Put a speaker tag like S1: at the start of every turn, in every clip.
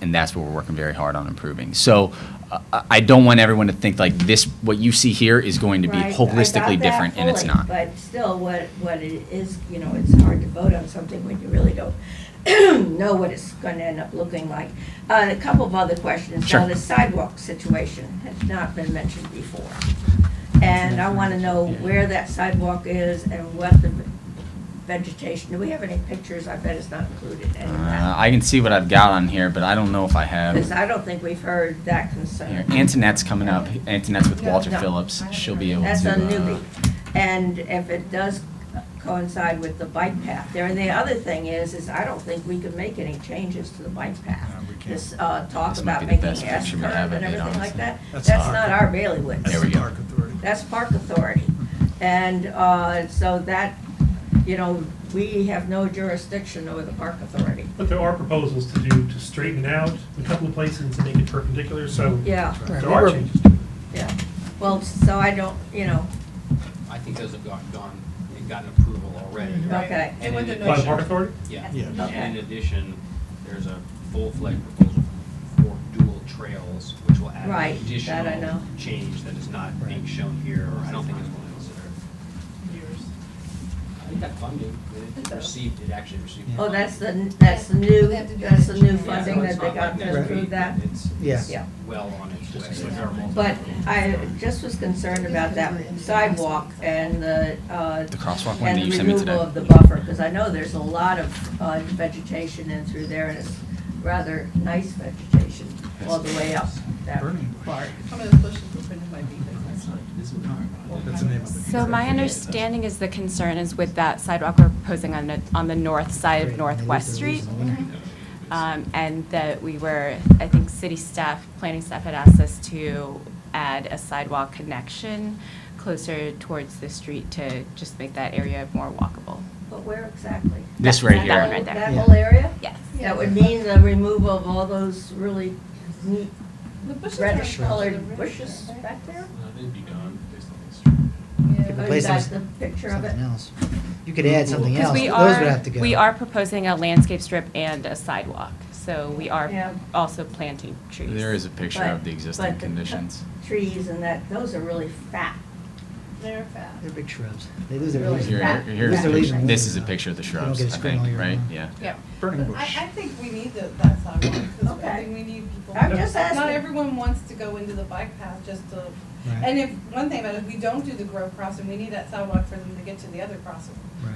S1: and that's what we're working very hard on improving. So uh, I I don't want everyone to think like this, what you see here is going to be
S2: Right, I got
S1: holistically
S2: that
S1: different, and it's
S2: fully,
S1: not.
S2: But still, what, what it is, you know, it's hard to vote on something when you really don't know what it's going to end up looking like. Uh, A couple of other questions. Now,
S1: Sure.
S2: the sidewalk situation has not been mentioned before. And I want to know where that sidewalk is and what the vegetation, do we have any pictures? I bet it's not included in
S1: Uh,
S2: that.
S1: I can see what I've got on here, but I don't know if I
S2: Because
S1: have.
S2: I don't think we've heard that
S1: Here,
S2: concern.
S1: Antonette's coming up. Antonette's with
S2: No,
S1: Walter
S2: no.
S1: Phillips. She'll be able to.
S2: That's a
S1: uh,
S2: newbie. And if it does coincide with the bike path there, and the other thing is, is I don't think we could make any changes to the bike path.
S3: No, we can't.
S2: This, uh, talk
S1: This might
S2: about
S1: be the
S2: making
S1: best
S2: S
S1: picture we
S2: curve
S1: have of
S2: and
S1: it,
S2: everything like
S1: honestly.
S2: that,
S3: That's
S2: that's
S3: our-
S2: not our bailiwick.
S3: That's
S1: uh, There we
S3: the
S1: go.
S3: Park Authority.
S2: That's Park Authority. And, uh, so that, you know, we have no jurisdiction over the Park Authority.
S4: But there are proposals to do, to straighten it out in a couple of places and to make it perpendicular, so
S2: Yeah,
S4: there
S3: Right.
S4: are changes to it.
S2: yeah. Well, so I don't, you know,
S5: I think those have gone, gone, and gotten approval already.
S6: Right.
S2: okay.
S6: And with the
S4: By the
S6: notion-
S4: Park Authority?
S5: Yeah.
S3: Yeah.
S5: And in addition, there's a full-fledged proposal for dual trails, which will add
S2: Right,
S5: an
S2: that I know.
S5: additional change that is not being shown here, or I don't think is one of those that are. I think that funding,
S6: It
S5: it
S6: does.
S5: received, it actually received.
S2: Oh,
S5: funding.
S2: that's the, that's the new,
S6: They have to do
S2: that's the new
S6: it.
S5: Yeah, so
S2: funding
S5: it's
S2: that they
S5: not
S2: got
S5: like
S2: to
S5: next
S2: approve
S5: week,
S2: that.
S5: It's,
S3: Yeah.
S5: it's
S2: Yeah.
S5: well on its way.
S6: just-
S5: There are multiple-
S2: But I just was concerned about that sidewalk and the, uh,
S1: The crosswalk one that
S2: and
S1: you
S2: the
S1: sent me today.
S2: removal of the buffer, because I know there's a lot of uh, vegetation in through there, and it's rather nice vegetation all the way up that
S3: Burning bush.
S2: part.
S6: Some of those bushes were put in my beef, that's not.
S3: That's the name of it.
S7: So my understanding is the concern is with that sidewalk we're proposing on the, on the north side of Northwest Street. Um, And that we were, I think city staff, planning staff had asked us to add a sidewalk connection closer towards the street to just make that area more walkable.
S2: But where exactly?
S1: This right
S7: That- that one
S1: here.
S7: right there.
S2: That whole area?
S7: Yes.
S2: That would mean the removal of all those really neat
S6: The bushes are
S2: reddish
S6: colored
S2: colored
S6: red.
S2: bushes back there?
S5: Uh, They'd be gone based on the history.
S6: Yeah.
S2: Oh, you
S8: place
S2: got
S8: is-
S2: the picture of it?
S8: Something else. You could add something
S7: Because
S8: else,
S7: we
S8: but those would
S7: are,
S8: have to go.
S7: we are proposing a landscape strip and a sidewalk. So we
S2: Yeah.
S7: are also planting trees.
S1: There is a picture
S2: But-
S1: of the
S2: but
S1: existing conditions.
S2: Trees and that, those are really fat.
S6: They're fat.
S8: They're big shrubs. They lose their
S2: Really
S8: leaves.
S2: Here's-
S1: Here,
S2: fat.
S8: They
S1: here's
S8: lose
S1: the
S8: their leaves
S1: picture.
S8: and
S1: This is
S8: leaves.
S1: a picture of the
S8: They don't
S1: shrubs,
S8: get to
S1: I
S8: spring all
S1: think,
S8: year
S1: right?
S8: round.
S1: Yeah.
S7: Yep.
S3: Burning
S6: I,
S3: bush.
S6: I think we need that, that sidewalk, because I
S2: Okay.
S6: think we need people.
S2: I'm just asking.
S6: Not everyone wants to go into the bike path just to,
S8: Right.
S6: and if, one thing about it, if we don't do the Grove crossing, we need that sidewalk for them to get to the other crossing.
S8: Right.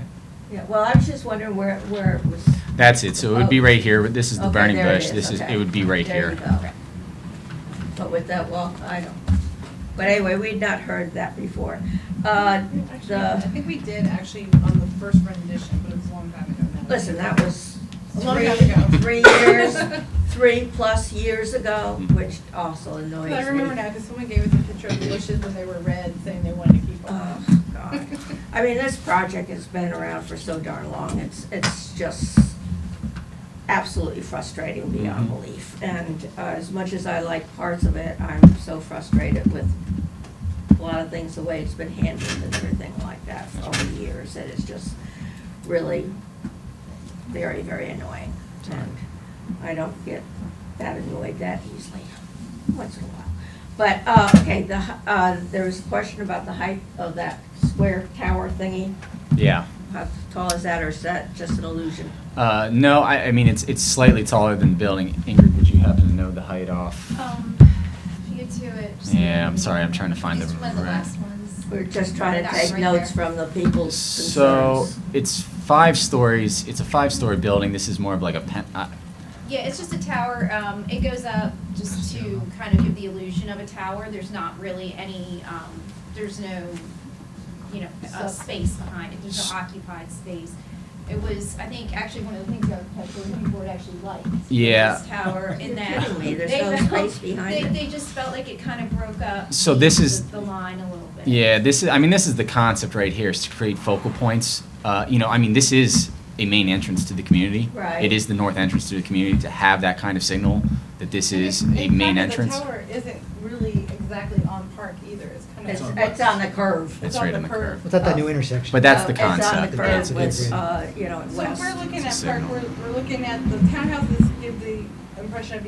S2: Yeah, well, I was just wondering where, where it was.
S1: That's it. So it would be right here. but This is the
S2: Okay,
S1: burning
S2: there it
S1: bush. This is,
S2: okay.
S1: it would be right
S2: There you
S1: here.
S2: go. But with that walk, I don't, but anyway, we'd not heard that before. Uh,
S6: Actually, I
S2: the,
S6: think we did actually on the first rendition, but it was a long time ago now.
S2: listen, that was
S6: A long
S2: three,
S6: time ago.
S2: three years, three-plus years ago,
S1: Hmm.
S2: which also annoys me.
S6: I remember now, because someone gave us a picture of the bushes when they were red, saying they wanted to keep them.
S2: Oh, God. I mean, this project has been around for so darn long, it's, it's just absolutely frustrating beyond belief. And uh, as much as I like parts of it, I'm so frustrated with a lot of things, the way it's been handled and everything like that for all the years, and it's just really very, very annoying. And I don't get that annoyed that easily, once in a while. But, uh, okay, the, h- uh, there was a question about the height of that square tower thingy.
S1: Yeah.
S2: How tall is that, or is that just an illusion?
S1: Uh, no, I, I mean, it's, it's slightly taller than the building. Ingrid, would you happen to know the height off?
S9: Um, if you get to it. just-
S1: Yeah, I'm sorry, I'm trying to find the
S9: It's one of the
S1: right-
S9: last ones.
S2: We're just trying to
S9: That's
S2: take
S9: right
S2: notes
S9: there.
S2: from the people's
S1: So
S2: concerns.
S1: it's five stories. It's a five-story building. This is more of like a pen, uh,
S9: Yeah, it's just a tower, um, it goes up just to kind of give the illusion of a tower, there's not really any, um, there's no, you know, uh, space behind it, there's no occupied space. It was, I think, actually one of the things our architectural review board actually liked. was
S1: Yeah.
S9: This tower
S2: You're
S9: in that.
S2: kidding me, there's
S9: they
S2: no
S9: felt-
S2: space behind
S9: they-
S2: it.
S9: They just felt like it kind of broke up.
S1: So this is-
S9: The the line a little bit.
S1: Yeah, this is. I mean, this is the concept right here: is to create focal points. Uh, you know, I mean, this is a main entrance to the community.
S2: Right.
S1: It is the north entrance to the community to have that kind of signal that this
S6: And
S1: is
S6: in-
S1: a
S6: in
S1: main
S6: fact, the
S1: entrance.
S6: tower isn't really exactly on Park either, it's kind of.
S2: It's, it's on the curve.
S1: It's
S6: on
S1: right
S6: the
S1: on the
S6: curve.
S1: curve.
S8: What's at that new intersection?
S1: But that's the
S2: Uh,
S1: concept.
S2: It's on
S8: That's
S2: the curve
S8: it.
S2: with, uh, you know,
S6: So if
S2: west.
S6: we're looking
S1: It's a
S6: at Park,
S1: signal.
S6: we're, we're looking at the townhouses give the impression of